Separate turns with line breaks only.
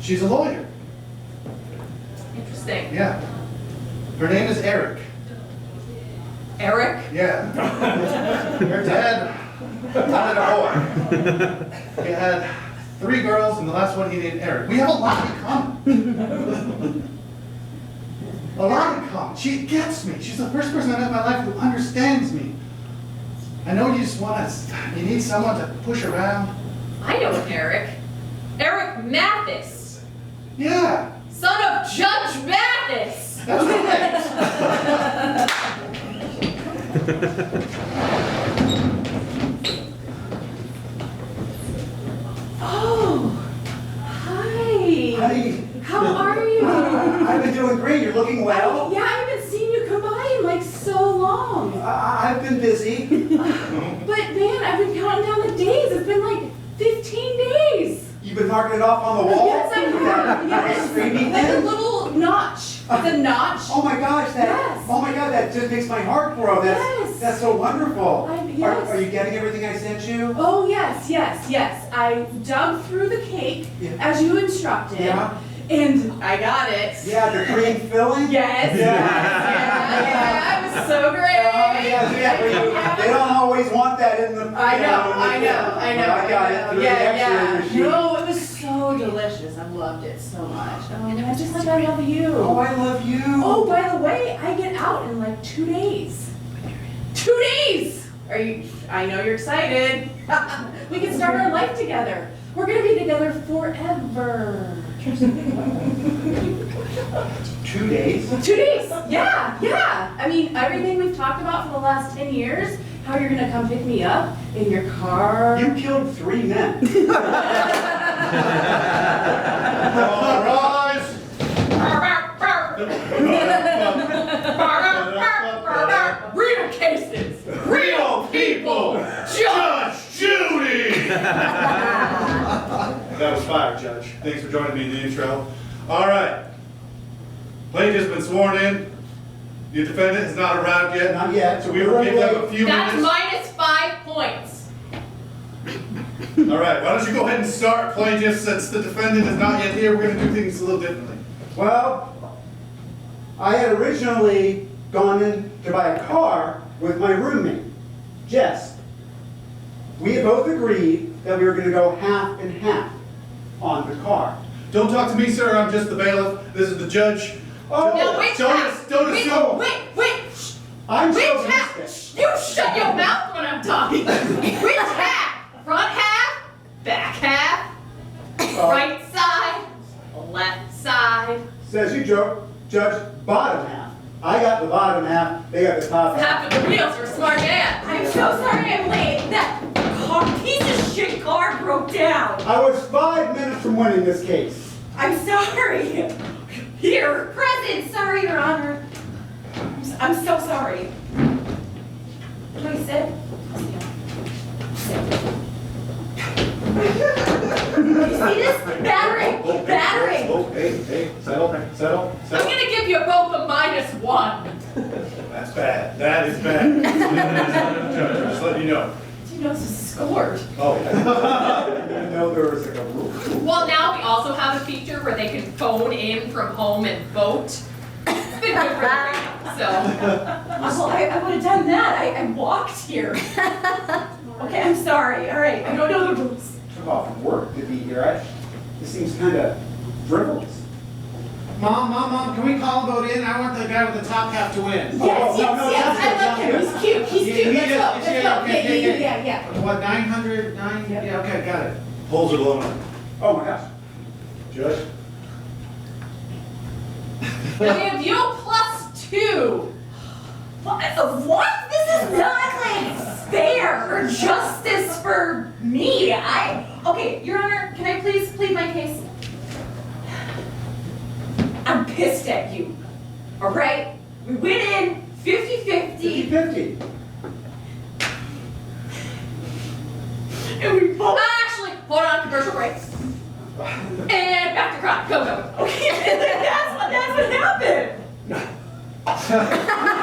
She's a lawyer,
Interesting.
yeah. Her name is Eric,
Eric?
yeah. Her dad, not a boy. He had three girls and the last one he named Eric. We have a lot in common. A lot in common. She gets me. She's the first person I met in my life who understands me. I know you just want to, you need someone to push around.
I know an Eric. Eric Mathis,
Yeah,
son of Judge Mathis.
that's right.
Oh, hi.
Hey,
How are you?
I've been doing great. You're looking well.
Yeah, I haven't seen you come by in like so long.
I- I've been busy.
But man, I've been counting down the days. It's been like 15 days.
You've been marking it off on the wall?
Yes, I have.
That- that
Yes.
screaming
Like a
thing?
little notch. The notch.
Oh my gosh, that,
Yes.
oh my God, that just makes my heart grow.
Yes.
That's, that's so wonderful.
I-
Are-
yes.
Are you getting everything I sent you?
Oh, yes, yes, yes. I dug through the cake
Yeah.
as you instructed.
Yeah.
And I got it.
Yeah, the cream filling?
Yes, yes,
Yeah.
yeah, yeah. It was so great.
Oh, yes, yeah, well,
Yeah.
you- they don't always want that in the.
I
you
know,
in the-
I know, I know.
I got it
know.
through the
Yeah,
X-ray
yeah.
machine.
No, it was so delicious. I loved it so much. Oh, and I just like I love you.
Oh, I love you.
Oh, by the way, I get out in like two days. Two days! Are you, I know you're excited. we can start our life together. We're gonna be together forever.
Two days?
Two days, yeah, yeah. I mean, everything we've talked about for the last 10 years, how you're gonna come pick me up in your car.
You killed three men.
All rise.
Real cases, real people.
Judge Judy! That was fire, Judge. Thanks for joining me in the intro. All right. Plaintiff's been sworn in. Your defendant has not arrived yet.
Not yet,
So we will give them a few minutes.
That's minus five points.
All right, why don't you go ahead and start plaintiff, since the defendant is not yet here, we're gonna do things a little differently.
Well, I had originally gone in to buy a car with my roommate, Jess. We had both agreed that we were gonna go half and half on the car.
Don't talk to me, sir, I'm just the bailiff, this is the judge.
Oh,
Now,
Don't
wait,
don't- don't
wait,
assume.
Wait, wait, shh,
I'm
wait,
so
half,
used
shh, you shut your mouth when I'm talking. Which half? Front half, back half, right side, left side,
Says you joke, judge, bottom half. I got the bottom half, they got the top half.
half of the wheels were smart man. I'm so sorry I'm late. That car, piece of shit car broke down.
I was five minutes from winning this case.
I'm sorry. Here. Present, sorry, Your Honor. I'm s- I'm so sorry. Can I sit? You see this? Battering, battering.
Oh, hey, hey, settle, settle,
I'm
settle.
gonna give you both a minus one.
That's bad, that is bad. Judge, Just letting you know.
You know, scored.
Oh,
I didn't know there was like a rule.
Well, now we also have a feature where they can phone in from home and vote. It's been good for the rating, so.
Well, I, I would have done that. I, I walked here. Okay, I'm sorry. All right, I don't know the rules.
Took off work to be here. I, this seems kind of frivolous.
Mom, mom, mom, can we call a vote in? I want the guy with the top half to
Yes,
win.
no, no,
yes, yes.
that's good,
I like
that's good.
him. He's cute. He's cute.
Yeah, he
Let's
is,
go. Let's go.
yeah,
Yeah,
okay,
yeah,
yeah,
yeah, yeah,
yeah.
yeah.
What, nine hundred, nine, yeah, okay, got it. Polls are blowing up.
Oh my gosh.
Judge?
Now we have you plus two.
What? What? This is not like fair or justice for me. I. Okay,
Your Honor, can I please plead my case?
I'm pissed at you. All right? We went in 50
Fifty
50
fifty.
and we both.
Uh, Actually, hold on, commercial break. And back to crime. Go, go, go.
Okay, that's what, that's what happened.
Oh,